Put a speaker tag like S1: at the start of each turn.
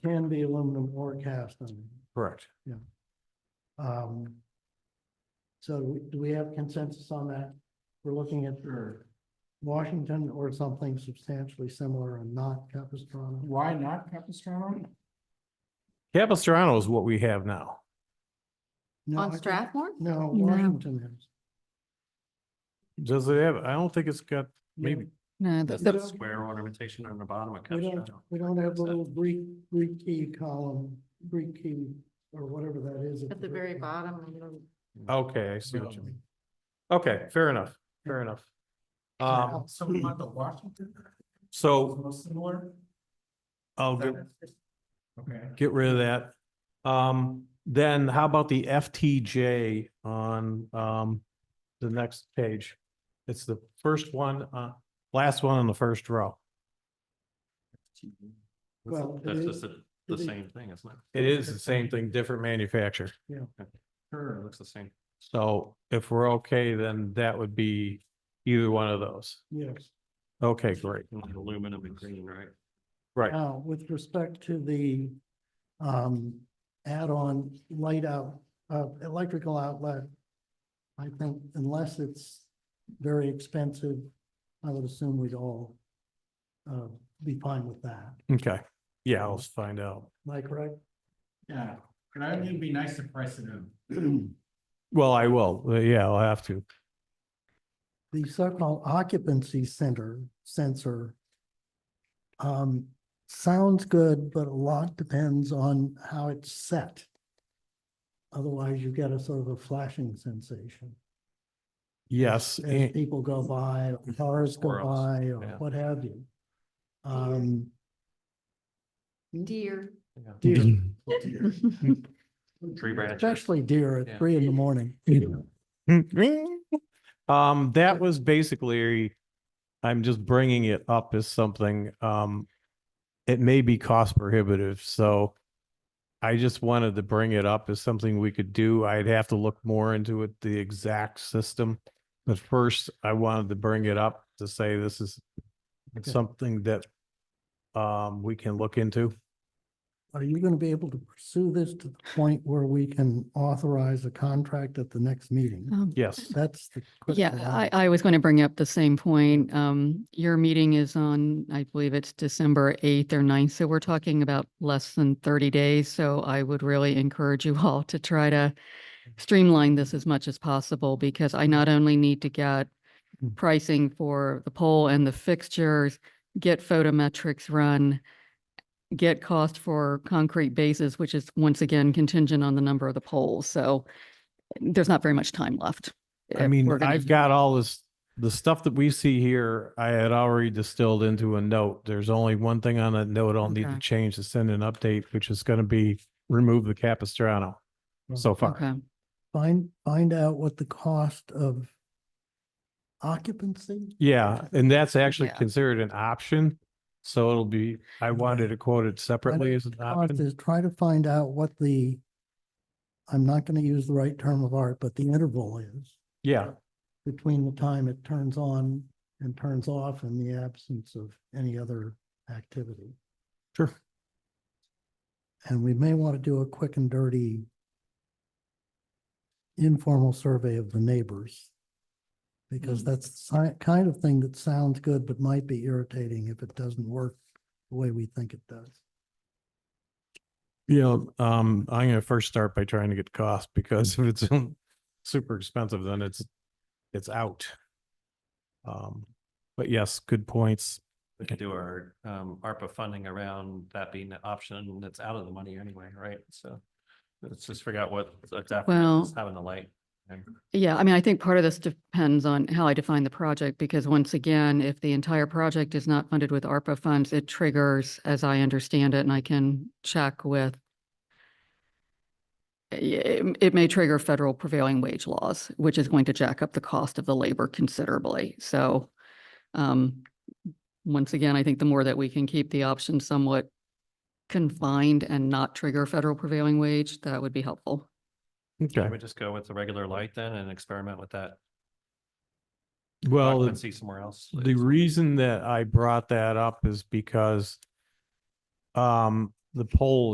S1: can be aluminum or cast iron.
S2: Correct.
S1: Um. So do we- do we have consensus on that? We're looking at Washington or something substantially similar and not Capistrano.
S3: Why not Capistrano?
S2: Capistrano is what we have now.
S1: No, I
S4: On
S1: think-
S4: Strathmore?
S1: No, Washington is.
S2: Does it have, I don't think it's got, maybe,
S4: No,
S1: That's
S4: the-
S1: the-
S5: Square ornamentation on the bottom of
S1: We don't,
S5: Capistrano.
S1: we don't have the little Greek, Greek key column, Greek key or whatever that is.
S4: at the very bottom, you know,
S2: okay, I see what you mean. Okay, fair enough, fair enough. Um,
S3: So we want the Washington,
S2: so
S3: most similar?
S2: I'll get,
S3: Okay.
S2: get rid of that. Um, then how about the FTJ on, um, the next page? It's the first one, uh, last one on the first row.
S1: Well, it
S5: That's
S1: is-
S5: just the- the
S1: it is-
S5: same thing, isn't it?
S2: It is the same thing, different manufacturer.
S5: Sure. It looks the same.
S2: So if we're okay, then that would be either one of those.
S1: Yes.
S2: Okay, great.
S5: Like Aluminum and green, right?
S2: Right.
S1: Now, with respect to the um add-on light out, uh, electrical outlet. I think unless it's very expensive, I would assume we'd all uh be fine with that.
S2: Okay. Yeah, I'll find out.
S1: Am I correct?
S3: Yeah, but I think it'd be nice to price it in.
S2: Well, I will. Uh, Yeah, I'll have to.
S1: the so-called occupancy center sensor um, sounds good, but a lot depends on how it's set. Otherwise, you get a sort of a flashing sensation.
S2: Yes,
S1: As
S2: and,
S1: people go by, or cars go
S5: Or else,
S1: by, or
S5: Mm-hmm. yeah.
S1: what have you. Um,
S4: deer.
S1: deer,
S6: Mm-hmm.
S5: Tree branches.
S1: especially deer at
S5: Yeah.
S1: three in the morning.
S2: um, that was basically, I'm just bringing it up as something, um, it may be cost prohibitive, so I just wanted to bring it up as something we could do. I'd have to look more into it, the exact system. But first, I wanted to bring it up to say this is something that um, we can look into.
S1: Are you going to be able to pursue this to the point where we can authorize a contract at the next meeting?
S6: Um,
S2: Yes,
S1: That's the. critical
S6: Yeah, I,
S1: element.
S6: I was going to bring up the same point. Um, your meeting is on, I believe it's December eighth or 9th, so we're talking about less than thirty days. So I would really encourage you all to try to streamline this as much as possible because I not only need to get
S2: Mm.
S6: pricing for the pole and the fixtures, get photometrics run, get cost for concrete bases, which is once again contingent on the number of the poles. So there's not very much time left.
S2: I
S6: if
S2: mean,
S6: we're gonna
S2: I've got all this, the stuff that we see here, I had already distilled into a note. There's only one thing on that note I'll need to
S6: Okay.
S2: change to send an update, which is going to be remove the Capistrano so far.
S6: Okay,
S1: Find, find out what the cost of occupancy?
S2: Yeah, and that's actually
S6: Yeah.
S2: considered an option. So it'll be, I wanted to quote it separately as an
S1: Cost
S2: option.
S1: is try to find out what the, I'm not going to use the right term of art, but the interval is
S2: Yeah,
S1: between the time it turns on and turns off in the absence of any other activity.
S2: Sure.
S1: And we may want to do a quick and dirty informal survey of the neighbors. Because that's the si- kind of thing that sounds good, but might be irritating if it doesn't work the way we think it does.
S2: yeah. Um, I'm going to first start by trying to get cost because if it's super expensive, then it's, it's out. Um, but yes, good points.
S5: We could do our um ARPA funding around that being an option that's out of the money anyway, right? So let's just figure out what adapter
S6: Well-
S5: is having the light.
S6: yeah, I mean, I think part of this depends on how I define the project, because once again, if the entire project is not funded with ARPA funds, it triggers, as I understand it, and I can check with i- it, it may trigger federal prevailing wage laws, which is going to jack up the cost of the labor considerably, so um, once again, I think the more that we can keep the option somewhat confined and not trigger federal prevailing wage, that would be helpful.
S2: Okay.
S5: Can we just go with the regular light then and experiment with that?
S2: Well,
S5: See somewhere else.
S2: the reason that I brought that up is because um, the poll